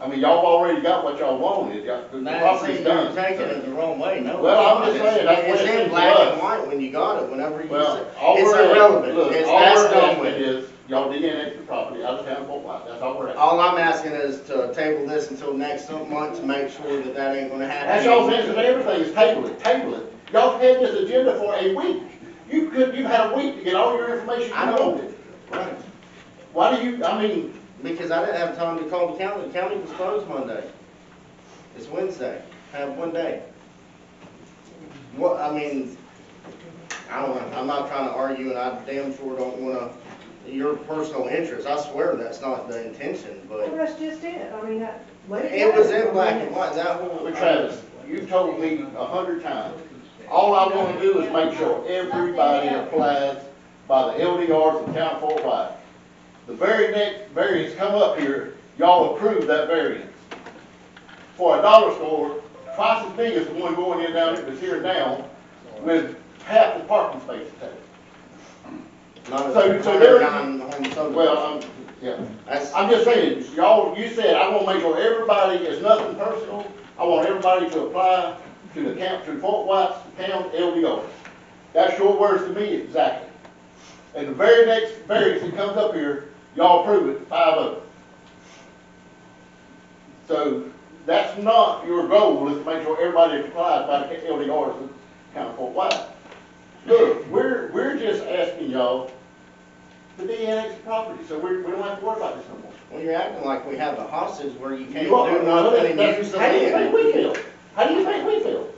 I mean, y'all already got what y'all wanted, y'all, the Now, see, property's you're done. taking it the wrong way, no. Well, I'm just saying, that's what It's it is in to black us. and white when you got it, whenever you Well, said, all it's we're asking- irrelevant, look, it's, all that's we're done asking with. is, Y'all DNA the property out of town for what, that's all we're asking. All I'm asking is to table this until next month to make sure that that ain't gonna happen. That's y'all's answer to everything, is table it, table it. Y'all had this agenda for a week. You could, you had a week to get all your information I you know. wanted. Right, Why do you, I mean, because I didn't have time to call the county, the county was closed Monday. It's Wednesday, have one day. What, I mean, I don't know, I'm not trying to argue and I damn sure don't wanna, your personal interest, I swear that's not the intention, Well, but that's just it, I mean, that, let it it was go. in black and white, that whole. But Travis, you've told me a hundred times, all I wanna do is make sure everybody applies by the LDRs and town Fort White. The very next variance come up here, y'all approve that variance. For a dollar store, twice as big as the one going in down, that's here now, with half the parking space attached. Not a- So- so not a there- non-home subdivision. Well, I'm, yeah. That's- I'm just saying, y'all, you said, I wanna make sure everybody, it's nothing personal, I want everybody to apply to the camp, to Fort White's town LDO. That's your words to me, exactly. And the very next variance that comes up here, y'all approve it, five oh. So, that's not your goal, is to make sure everybody applies by the LDRs in town of Fort White. Look, we're, we're just asking y'all to de-annex the property, so we, we don't have to worry about this no more. Well, you're acting like we have a hostage where you can't You are, do nothing and use that's- the how do you think we land. feel? How do you think we feel?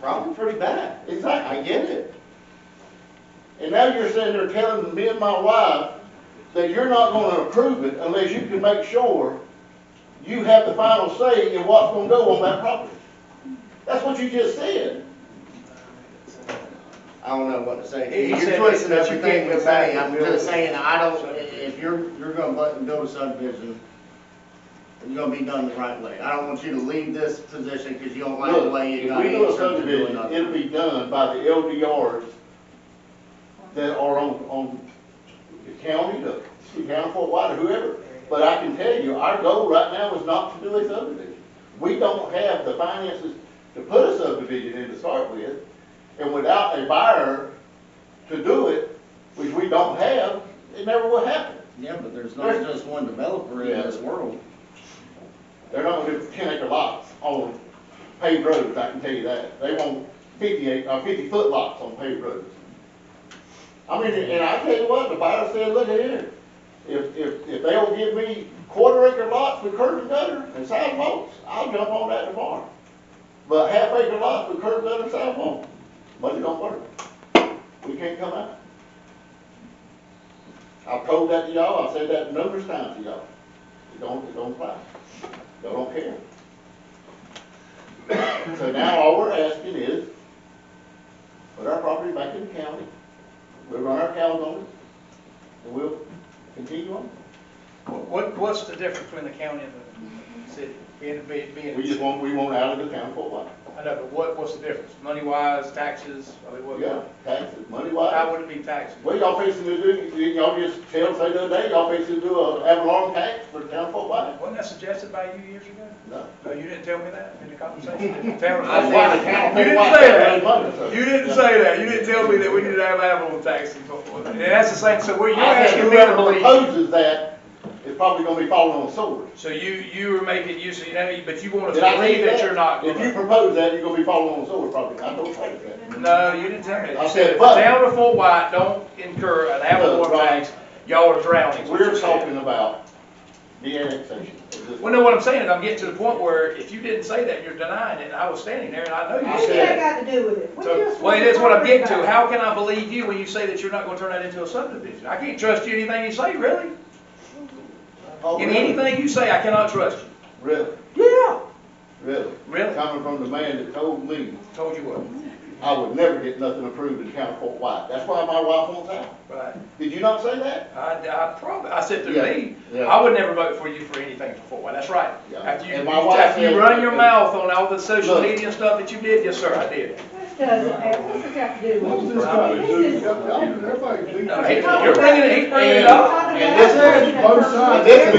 Probably pretty bad. I Exactly. get it. And now you're sitting there telling me and my wife that you're not gonna approve it unless you can make sure you have the final say in what's gonna go on that property. That's what you just said. I don't know what to say. He You're said twisting that you everything can't with go back me. and I'm build just it. saying, I don't, if you're, you're gonna bu- build a subdivision, you're gonna be done the right way. I don't want you to leave this position because you don't like the Look, way you if got we do a answered to do subdivision, it'll another. be done by the LDRs that are on, on the county, the city council, Fort White, or whoever. But I can tell you, our goal right now is not to do a subdivision. We don't have the finances to put a subdivision in to start with, and without a buyer to do it, which we don't have, it never will happen. Yeah, but there's not just one developer in Yeah. this world. They're not gonna do ten acre lots on paved roads, I can tell you that. They want fifty acre, uh, fifty foot lots on paved roads. I mean, and I tell you what, the buyer said, look at here, if, if, if they'll give me quarter acre lots with curb and gutter and sidewalks, I'll jump on that tomorrow. But half acre lots with curb, gutter, and sidewalk, money don't work. We can't come out. I've told that to y'all, I've said that numerous times to y'all. It don't, it don't apply. Y'all don't care. So now all we're asking is, put our property back in the county, we'll run our cows on it, and we'll continue on. What, what's the difference between the county and the city? Being, being, being. We just want, we want out of the town for a while. I know, but what, what's the difference? Money wise, taxes, I mean, what? Yeah, taxes, money How wise. would it be taxed? Well, y'all fixing to do, didn't y'all just tell, say the other day, y'all fixing to do a avalon tax for town for a while? Wasn't that suggested by you years ago? No. No, you didn't tell me that in the conversation. You didn't tell me That's why the town You for a didn't while say got that. no money, so- You didn't Yeah. say that, you didn't tell me that we need to have animal taxes, and that's the same, so what you're I think asking me to whoever believe. proposes that is probably gonna be falling on swords. So you, you were making use of, you know, but you want us Did to I tell believe you that you're not If you gonna. propose that, you're gonna be falling on swords probably, I don't think that. No, you didn't tell me that. I You said, said, but- down to Fort White, don't incur an No, animal right. tax, y'all are drowning. We're talking about the annexation. of this- Well, no, what I'm saying is I'm getting to the point where if you didn't say that, you're denying it, and I was standing there and I know I you What's said that it. got to do with it? We So, just well, want that's what I'm getting to. everybody. How can I believe you when you say that you're not gonna turn that into a subdivision? I can't trust you in anything you say, really. Oh, In really? anything you say, I cannot trust you. Really, Yeah, really. Really? Coming from the man that told me Told you what. I would never get nothing approved in County Fort White. That's why my wife wants out. Right. Did you not say that? I, I probably, I said to Yeah, me, yeah. I would never vote for you for anything before. Well, that's right. Yeah. After you, And my wife after said- you run your mouth on all the social Look. media and stuff that you did, yes, sir, I did. this doesn't have, what's it got to do What's with this it? got to do with- This is- Everybody do- No, he- You're bringing it, he's bringing it up. And this is- both sides. This is